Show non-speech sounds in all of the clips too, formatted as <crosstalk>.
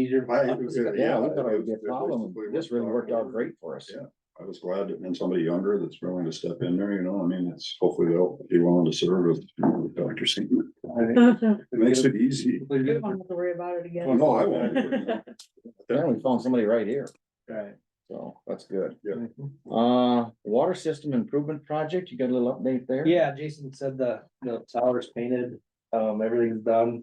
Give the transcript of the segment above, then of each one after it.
easier. I- it was- yeah, Yeah, we thought it would be a it was problem. basically This what really worked out Doc- great for us. Yeah. I was glad that then somebody younger that's willing to step in there, you know, I mean, it's hopefully they'll be willing to serve as you know, Dr. Seaman. I <laughs> think It makes it easy. we You did- don't have to worry about it Oh, <laughs> again. no, I won't. <laughs> Yeah, we found somebody right here, Right. so that's good. Yeah. Uh, water system improvement project, you got a little update there? Yeah, Jason said the, the tower's painted, um, everything's done.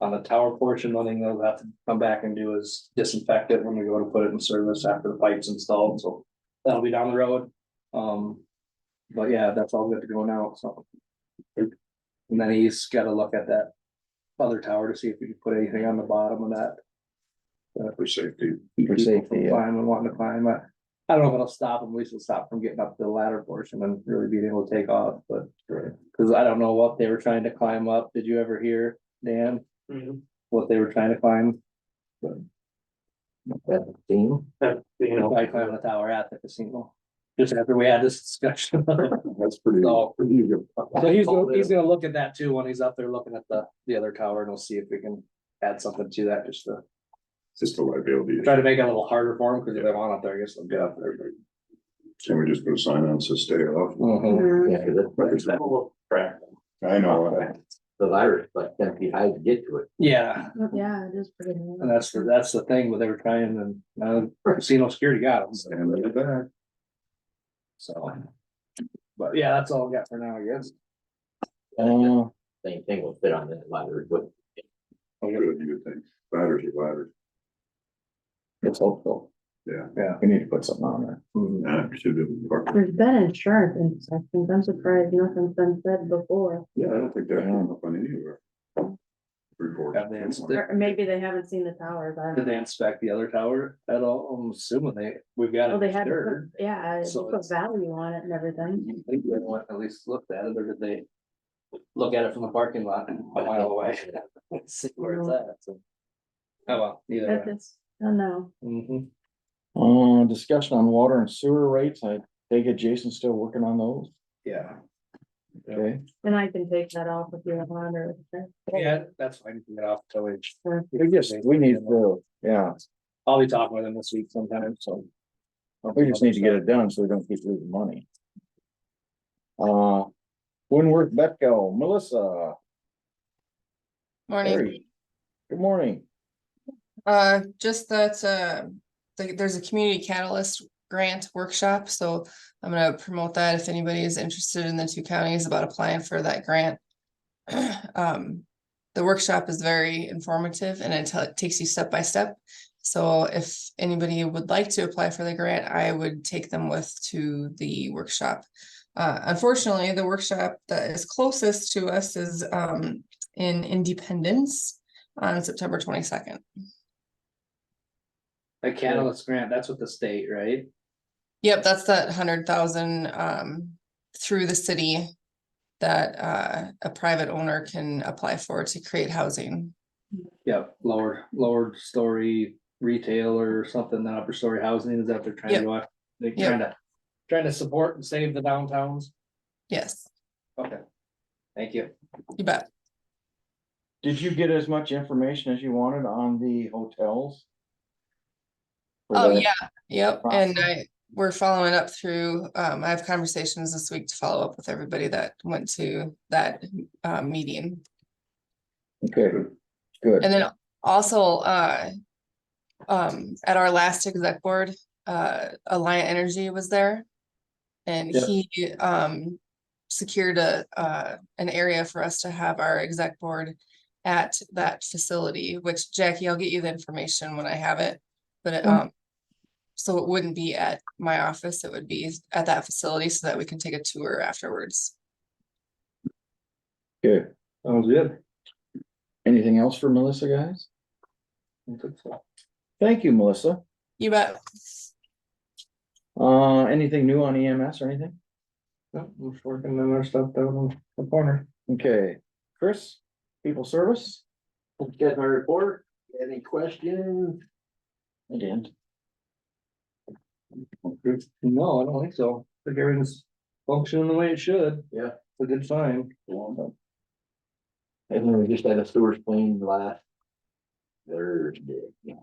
On the tower portion, the only thing they'll have to come back and do is disinfect it when we go to put it in service after the pipe's installed, so that'll be down the road. Um, but yeah, that's all good to go now, so. And then he's gotta look at that other tower to see if we can put anything on the bottom of that. For safety. For safety, yeah. Climb and wanting to climb, I, I don't know if it'll stop them, at least it'll stop from getting up to the ladder portion and really being able to take off, but. Cause I don't know what they were trying to climb up, did you ever hear, Dan, Mm-hmm. what they were trying to climb? That theme, You know, I climbed the tower at the casino, just after we had this <laughs> discussion. That's pretty. So- pretty good. So he's, gonna- he's gonna look at that too, when he's up there looking at the, the other tower, and we'll see if we can add something to that, just to It's Just a liability. try to make it a little harder for him, cause if they want up there, I guess they'll get up there. Can we just put a sign on, says stay off? Mm-hmm. Oh. Mhm. Yeah, 'cause that's Like I said, Correct. I know. the virus, like ten feet high to get to it. Yeah, Yeah, it is pretty. neat. And that's, the that's the thing, what they were trying, and now the <laughs> casino security got them, And then back. so. But yeah, that's all I got for now, I guess. uh, Same thing will fit on that ladder, but Good, you would think. Ladders are ladders. it's hopeful, Yeah. we need to put something on there. Yeah, we should be able to park. There's been insurance inspections. I'm surprised nothing's been said before. Yeah, I don't think that came up on anywhere. Report. Have they insta- Or maybe they haven't seen the towers. I Did don't they know. inspect the other tower at all? I'm assuming they, we've got. Well, it they had, to disturbed. put- yeah, they So put it's- value on it and everything. You think they want at least looked at it, or did they? Look at it from the parking lot a mile away. <laughs> See where it's at, so. Oh, well, either At way. this, I don't know. Mhm. Uh, discussion on water and sewer rates, I take it Jason's still working on those, Yeah, okay? And I can take that off if you want or. yeah, that's fine, you can get off till we. We just, we need to, yeah, I'll be talking with him this week sometime, so. we just need to get it done so we don't keep losing money. Uh, Winworth Betco, Melissa, Morning. Hey. good morning. Uh, just that, uh, th- there's a community catalyst grant workshop, so I'm gonna promote that if anybody is interested in the two counties about applying for that grant. <clears throat> Um, the workshop is very informative and it tell- takes you step by step. So if anybody would like to apply for the grant, I would take them with to the workshop. Uh, unfortunately, the workshop that is closest to us is, um, in Independence on September twenty-second. A catalyst grant, that's with the state, right? Yep, that's that hundred thousand um through the city. That uh a private owner can apply for to create housing. Yep, lower, lower story retail or something, not upper story housing, is that they're trying to Yep. do? They're Yep. trying to, trying to support and save the downtowns? Yes, Okay. Thank you. you bet. Did you get as much information as you wanted on the hotels? For Oh, the- yeah, yep, Wow. and I, we're following up through, um, I have conversations this week to follow up with everybody that went to that uh meeting. Okay, good. And then also, uh. Um, at our last exec board, uh, Alliant Energy was there. And Yeah. he, um, secured a, uh, an area for us to have our exec board. At that facility, which Jackie, I'll get you the information when I have it, but, um. So it wouldn't be at my office, it would be at that facility so that we can take a tour afterwards. Okay. Sounds good. Anything else for Melissa, guys? Thank you, Melissa. You bet. Uh, anything new on EMS or anything? We're working on our stuff down on the corner. Okay, Chris, people service? get my report, any questions? I didn't. No, I don't think so. Like everything's functioning the way it should. Yeah. It's a good sign. And then we just had a sewers clean last Thursday.